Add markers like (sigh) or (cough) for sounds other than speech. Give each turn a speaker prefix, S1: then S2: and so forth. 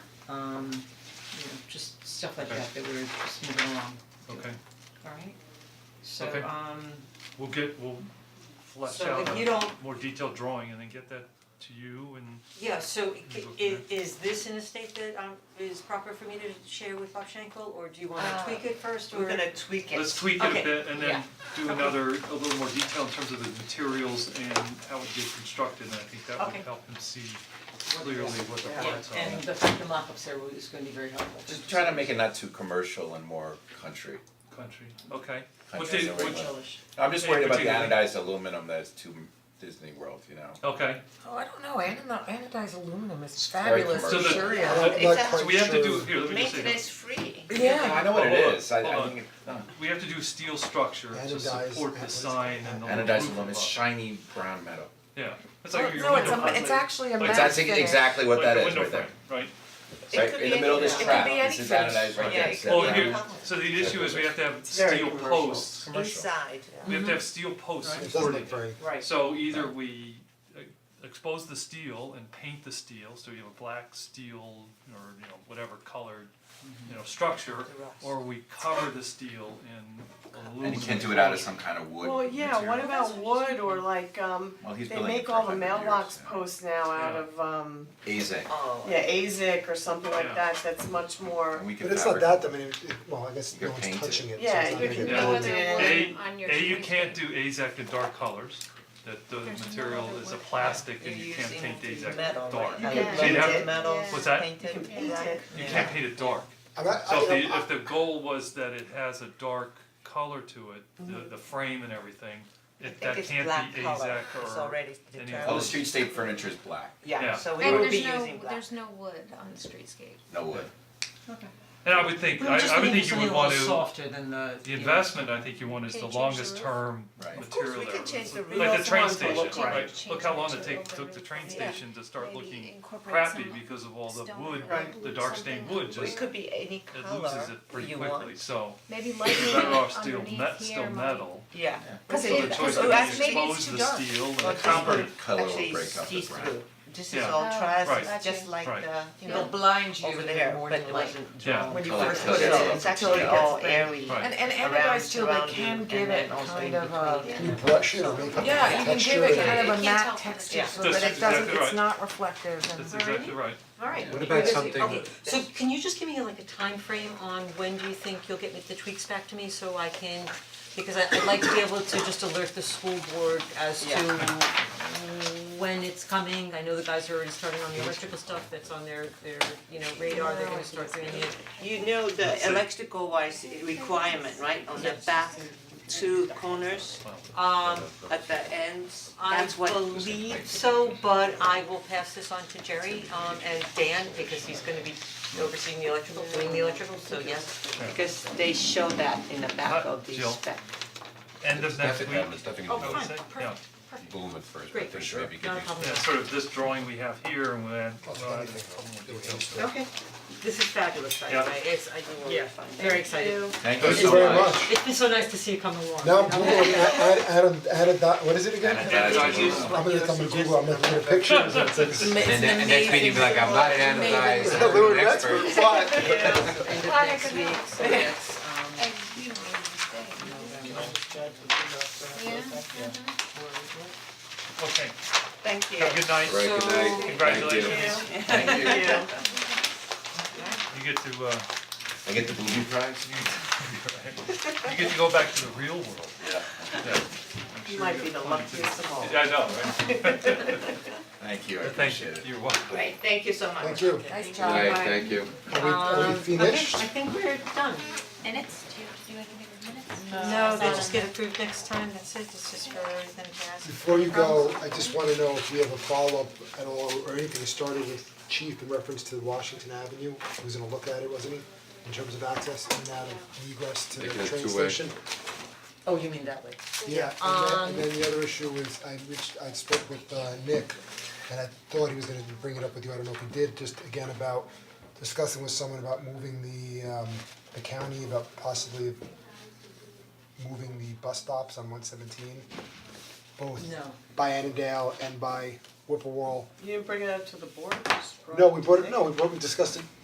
S1: um, you know, just stuff like
S2: Okay.
S1: that, that we're just moving along,
S2: Okay,
S1: alright? So,
S2: Okay.
S1: um,
S2: we'll get, we'll flesh
S1: so
S2: out
S1: if you
S2: a
S1: don't,
S2: more detailed drawing and then get that to you and
S1: yeah, so i-
S2: Look
S1: i- is this in a state that um is proper for me to share with Bob Schenkel, or do you wanna
S3: Uh,
S1: tweak it first, or?
S3: We're gonna tweak it.
S2: let's tweak it a
S1: Okay,
S2: bit and then
S3: yeah.
S2: do another, a little more detail in terms of the materials and how it gets constructed, and I think that
S1: Okay.
S2: would help them see clearly what the
S1: Yeah,
S2: plans are.
S1: and the fact the mock-ups there is gonna be very helpful.
S4: Just trying to make it not too commercial and more country.
S2: Country, okay. What
S4: Country
S2: did,
S4: is a
S2: what,
S4: regular.
S1: Relish.
S4: I'm just
S2: Hey,
S4: worried about the
S2: particularly-
S4: anodized aluminum that's too Disney World, you know.
S2: okay,
S5: Oh, I don't know, anodized, anodized aluminum is
S4: very
S5: fabulous,
S4: commercial.
S2: So the-
S5: sure, yeah.
S3: I'm not
S2: so we have to do, here, let me just say,
S3: Maintenance free.
S5: Yeah.
S4: I know what
S2: Hold
S4: it
S2: on,
S4: is, I
S2: hold
S4: I
S2: on.
S4: think it, no.
S2: we have to do steel structure to
S6: Anodized-
S2: support the
S6: what is it?
S2: sign and the roof
S4: anodized aluminum, it's
S2: above.
S4: shiny brown metal.
S2: Yeah, it's
S5: Well,
S2: like your
S5: No, it's
S2: window
S5: a, it's
S2: frame,
S5: actually a
S2: Like,
S5: matte
S4: It's actually
S5: finish.
S4: exactly what
S2: like
S4: that
S2: the
S4: is
S2: window
S4: right there.
S2: frame, right?
S4: It's like in the middle of this
S3: It could be
S4: trap,
S3: any-
S4: this is
S3: it could be any
S4: anodized right
S3: finish.
S4: there,
S3: Yeah,
S4: it's
S3: it
S4: that
S2: Well,
S4: brown.
S2: here, so the issue is we have to have
S6: very
S2: steel
S6: commercial.
S2: posts,
S4: Commercial.
S3: Inside,
S2: we have to have steel posts
S6: It
S2: supporting
S6: doesn't look very,
S1: Right,
S2: So either we uh, expose the steel and paint the steel, so you have a black steel or, you know, whatever colored, you know, structure,
S3: rust.
S2: or we cover the steel in aluminum.
S4: And you can't do it out of some kind of wood
S7: Well, yeah, what
S4: material.
S7: about wood or like, um,
S4: Well, he's
S7: they
S4: building it
S7: make
S4: for
S7: all the
S4: 100 years,
S7: mailbox
S4: yeah.
S7: posts now out
S2: Yeah.
S7: of, um,
S4: Azek,
S1: Uh,
S3: Oh.
S7: yeah, ASIC or something
S2: Yeah.
S7: like that, that's much more,
S4: and we can
S6: but it's not
S4: fabricate-
S6: that, I mean, it, it- well, I guess
S4: You could
S6: no one's
S4: paint it.
S6: touching it, so
S7: Yeah,
S6: it's not
S7: you
S6: gonna
S7: could
S6: be
S7: paint
S6: built.
S7: it. Yeah.
S2: A,
S8: on your
S2: A, you
S8: choice
S2: can't
S8: date.
S2: do AZAC in dark colors, that the material is a plastic and you can't paint AZAC
S3: Metal,
S2: dark.
S3: right?
S7: You can
S2: So you'd
S7: paint
S2: have-
S7: it.
S3: Metals,
S2: What's that?
S3: painted.
S7: You can paint it.
S2: You can't paint it dark.
S6: I'm not-
S2: So if
S6: I-
S2: the, if the goal was that it has a dark color to it, the, the frame and everything, it,
S3: I
S2: that
S3: think it's
S2: can't
S3: black
S2: be AZAC or.
S3: color, it's already
S2: any
S3: determined.
S4: all the street state furniture is black,
S2: Yeah.
S3: Yeah, so we
S2: And
S3: would be
S8: there's no-
S3: using black.
S8: There's no wood on the streetscape.
S4: no wood.
S2: And I would think,
S1: we
S2: I,
S1: were just
S2: I would
S1: thinking
S2: think you
S1: something
S2: would
S1: a little
S2: want to,
S1: softer than the,
S2: the
S1: you know,
S2: investment, I think you want is
S8: Can
S2: the
S8: you change the
S2: longest
S8: roof?
S2: term
S4: Right.
S2: material
S4: Of
S3: course, we
S2: there.
S3: can change the
S2: It's
S3: roof.
S2: Like the
S3: Also
S2: train
S3: want to
S2: station,
S3: look right.
S2: right,
S8: Change
S2: look how
S8: it
S2: long
S8: to
S2: it take,
S8: open
S2: took the
S8: roof
S2: train
S8: on it.
S2: station to start
S8: Maybe
S2: looking
S8: incorporate
S2: crappy
S8: some
S2: because of all the
S8: stone
S2: wood,
S8: or
S2: the dark stained
S8: something.
S2: wood
S3: It
S2: just,
S3: could be any
S2: it
S3: color
S2: loses it pretty
S3: you
S2: quickly,
S3: want.
S2: so.
S8: Maybe
S2: you're
S8: lighting
S2: Better off
S8: it
S2: steel,
S8: underneath
S2: met, steel
S8: here
S2: metal.
S3: Yeah.
S8: Cause
S2: So
S8: it,
S2: the
S8: cause
S2: choice
S3: oh,
S2: would be
S3: actually,
S2: expose the
S8: dark.
S2: steel and
S3: Well,
S2: the
S3: this
S2: copper,
S3: is-
S4: Color will
S3: actually,
S4: break up the
S3: see
S4: brown.
S3: through. This is
S2: Yeah.
S3: all
S8: Oh,
S3: trust,
S2: right.
S3: it's just like
S2: Right.
S3: the, you
S1: They'll
S3: know,
S1: blind you
S3: Over
S1: in
S3: there,
S1: the morning,
S3: but
S1: it
S3: like-
S1: wasn't.
S2: Yeah.
S3: when you
S4: Color
S3: first
S4: coded,
S3: see it,
S4: so
S3: it's
S4: it's
S3: actually
S4: got-
S3: all airy.
S2: Right.
S5: And and
S3: Around,
S5: anodized too, they
S3: surrounding,
S5: can
S3: and
S5: give
S3: then
S5: it
S3: also
S5: kind
S3: in
S5: of a,
S3: between.
S6: Can you brush it or make up a
S5: yeah, you can give
S6: texture
S5: it
S6: that-
S5: kind of a
S8: You can't tell
S5: matte
S8: from the
S5: texture, so
S2: That's
S5: that it doesn't,
S2: exactly
S5: it's
S2: right.
S5: not reflective and.
S2: that's exactly right.
S1: Alright.
S6: What about something-
S1: Okay, so can you just give me like a time frame on when do you think you'll get the tweaks back to me so I can, because I- I'd like to be able to just alert the school board as to when it's coming, I know the guys are already starting on the electrical stuff that's on their their, you know, radar, they're gonna start doing it.
S3: You know the electrical wise requirement, right, on the back two corners
S1: Um,
S3: at the ends,
S1: I
S3: that's what.
S1: believe so, but I will pass this on to Jerry, um, and Dan, because he's gonna be overseeing the electrical, doing the electrical, so yes.
S3: Because they show that in the back
S2: Uh,
S3: of the
S2: Jill.
S3: spec.
S2: End of next week,
S9: there's nothing
S1: Oh,
S2: I would
S1: fine,
S2: say, yeah,
S1: perfect,
S9: boom at first,
S1: Great.
S9: but then maybe get
S1: not a
S9: these
S1: problem.
S2: yeah, sort of this drawing we have here and uh, we'll add,
S6: I'll take
S2: we'll add a
S6: anything.
S2: couple more
S6: Do it.
S2: details.
S1: Okay, this is fabulous, by the
S2: Yeah.
S1: way, it's, I, yeah, very excited.
S4: Thank you
S6: Thank you
S4: so
S6: very
S4: much.
S6: much.
S1: It's been so nice to see you come along.
S6: Now I'm Googling, a- a- add, add, add, dot what is it again?
S4: Anodized aluminum.
S6: I'm gonna, I'm gonna Google, I'm gonna look at pictures, it's, it's.
S4: uh,
S9: And then, and next meeting, be like, I'm not an anodized,
S6: They
S9: I'm
S6: (laughs) were
S9: an
S6: an
S9: expert.
S6: expert,
S1: End
S6: but-
S1: of next week, so that's, um,
S8: And you know, you stay. Yeah,
S1: Mm-hmm.
S8: mhm.
S2: Okay,
S3: Thank you.
S2: have a good night,
S4: Right, good night.
S2: congratulations,
S4: Thank you. Thank you.
S2: you get to uh, (laughs)
S4: I get the booby prize?
S2: you get to go back to the real world.
S4: Yeah.
S2: Yeah,
S7: you might be the luckiest of all.
S2: I know, right?
S4: Thank you, I
S2: Thank
S4: appreciate
S2: you,
S4: it.
S2: you're welcome.
S3: Great, thank you so much.
S6: Thank you.
S5: Nice
S9: All
S5: job.
S9: right, thank you.
S6: Are we, are
S5: Um,
S6: we
S1: okay, I
S6: finished?
S1: think we're done.
S8: Minutes, do you have to do anything with minutes?
S1: No, they just get approved next time, that's it, it's just for them to ask.
S6: Before you go, I just wanna know if you have a follow-up at all, or anything started with Chief in reference to Washington Avenue, he was gonna look at it, wasn't he? In terms of access and out of egress to the
S9: Make it a
S6: train
S9: two-way.
S6: station?
S1: Oh, you mean that way?
S6: Yeah, and then, and then the other issue is, I reached, I spoke with uh, Nick, and I thought he was gonna bring it up with you, I don't know if he did, just again about discussing with someone about moving the, um, the county, about possibly moving the bus stops on one seventeen, both
S1: No.
S6: by Annandale and by Whipple Wall.
S7: You didn't bring it up to the board, you just brought
S6: No,
S7: it
S6: we
S7: to
S6: brought
S7: me.
S6: it, no, we brought, we discussed it